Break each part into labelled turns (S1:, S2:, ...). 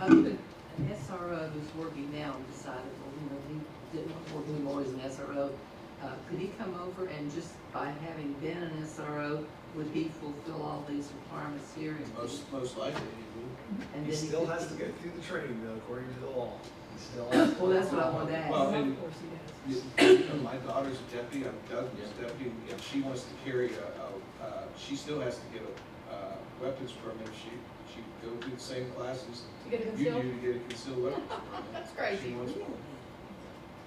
S1: I put an SRO who's working now and decided, well, you know, he didn't want to work anymore as an SRO. Uh, could he come over and just by having been an SRO, would he fulfill all these requirements here? and-
S2: Most, most likely, he would.
S1: and
S3: He
S1: then
S3: still
S1: could-
S3: has to go through the training though, according to the law. He still has to.
S1: Well, that's what I wanted to ask.
S2: Well, and-
S4: Of course he does.
S2: You- you know, My daughter's a deputy, I'm Doug's deputy, if she wants to carry a, a, uh, she still has to get a, uh, weapons permit, she, she go through the same classes
S4: You get a
S2: you do
S4: concealed?
S2: to get a concealed weapons permit.
S4: That's crazy.
S2: She wants one.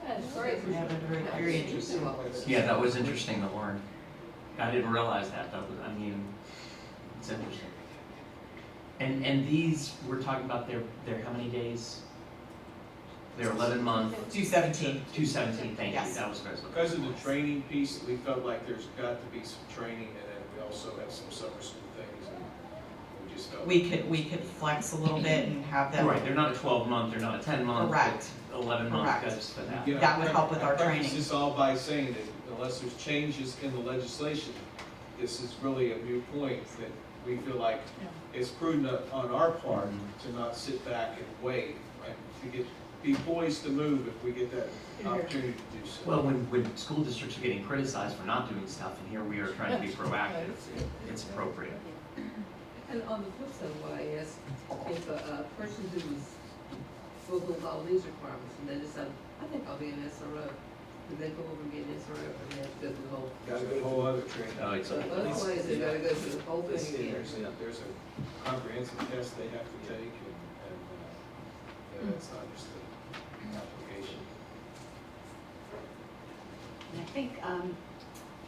S4: That's crazy.
S1: Yeah, but very- very interesting.
S5: Yeah, that was interesting to learn. I didn't realize that. That was, I mean, it's interesting. And and these we're talking about they're they're how many days? They're eleven month.
S6: Two seventeen.
S5: Two seventeen. Thank you.
S6: Yes.
S5: That was great.
S2: Because of the training piece, we felt like there's got to be some training, and then we also have some summer school things, and we just felt.
S6: We could, we could flex a little bit and have them.
S5: Right. They're not a twelve month. They're not a ten month.
S6: Correct.
S5: but Eleven month
S6: Correct.
S5: goes for that.
S2: You know,
S6: That would help with
S2: I- I
S6: our
S2: preface
S6: training.
S2: This all by saying that unless there's changes in the legislation, this is really a new point that we feel like it's prudent on our part
S6: Mm-hmm.
S2: to not sit back and wait, right? To get, be poised to move if we get that opportunity to do so.
S5: Well, when when school districts are getting criticized for not doing stuff, and here we are trying to be proactive, it's appropriate.
S1: And on the flip side, what I asked, if a, a person who was fulfilled all these requirements and they decided, I think I'll be an SRO, could they go over and get an SRO and they have to go through the whole?
S2: Got a whole other training.
S5: Oh, it's
S1: So
S5: a-
S1: otherwise, they gotta go through the whole
S2: They
S1: thing
S2: see
S1: again.
S2: There's a, there's a comprehensive test they have to take, and, and, uh, yeah, it's not just the application.
S7: And I think, um,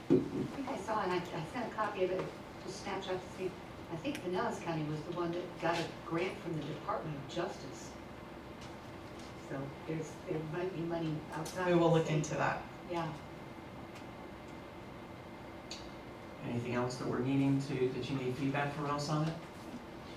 S7: I think I saw, and I, I sent a copy of it, just snapshot to see, I think Pinellas County was the one that got a grant from the Department of Justice. So there's, there might be money outside.
S6: We will
S7: the
S6: look
S7: state.
S6: into that.
S7: Yeah.
S5: Anything else that we're needing to that you need feedback from us on it?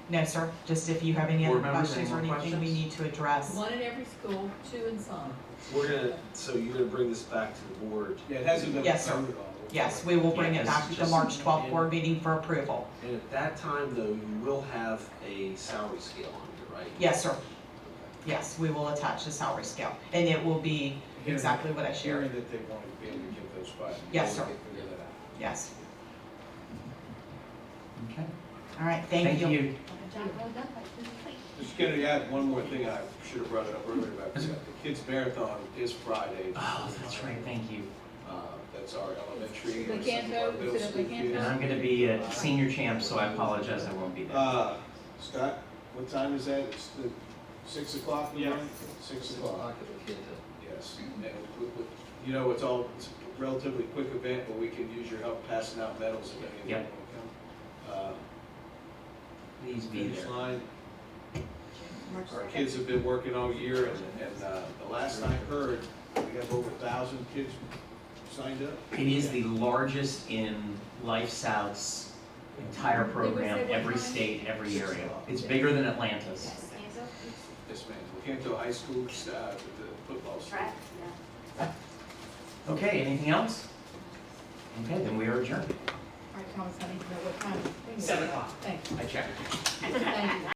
S6: No, sir, just if you have any other
S5: Board members,
S6: questions
S5: any
S6: or
S5: more
S6: anything we
S5: questions?
S6: need to address.
S4: One in every school, two in some.
S8: We're gonna, so you're gonna bring this back to the board
S2: Yeah, it hasn't been covered
S6: Yes,
S2: all. the
S6: sir.
S2: way.
S6: Yes, we will bring
S5: Yeah,
S6: it
S5: this
S6: back
S5: is
S6: to the
S5: just-
S6: March twelfth board meeting for approval.
S8: And at that time, though, you will have a salary scale on here, right?
S6: Yes, sir. Yes, we will attach the salary scale and it will be
S2: Hearing-
S6: exactly what I shared.
S2: Hearing that they wanted to be able to give those five.
S6: Yes, sir.
S2: Get rid of that.
S6: Yes.
S5: Okay.
S6: All right,
S5: Thank you.
S7: John, well done, but this is like-
S2: Just gonna add one more thing, I should have brought it up earlier, but I forgot. the kids marathon is Friday.
S5: Oh, that's right. Thank you.
S2: Uh, that's our elementary.
S4: They
S2: and
S4: can't
S2: some of our
S4: go,
S2: middle
S4: instead of
S2: school
S4: they can't
S2: kids.
S5: And I'm gonna be a senior champ, so I apologize, I won't be there.
S2: Uh, Scott, what time is that? It's the six o'clock in the morning? Six o'clock.
S8: at the kid hill.
S2: Yes, and we- we- you know, it's all, it's a relatively quick event, but we can use your help passing out medals if any of you
S5: Yeah.
S2: want to come. Uh,
S5: Please be
S2: Finish
S5: there.
S2: line,
S4: March
S2: our
S4: second.
S2: kids have been working all year, and, and uh, the last I heard, we have over a thousand kids signed up.
S5: It is the largest in Life South's entire program, every state, every area. It's bigger than Atlanta's.
S7: Yes, hands up,
S2: Yes, ma'am, Canto High School, uh, the football. team.
S7: track, yeah.
S5: Okay, anything else? Okay, then we are adjourned.
S4: All right, Thomas, I need to know what time.
S5: Seven o'clock.
S4: Thank you.
S5: I checked.
S4: Thank you.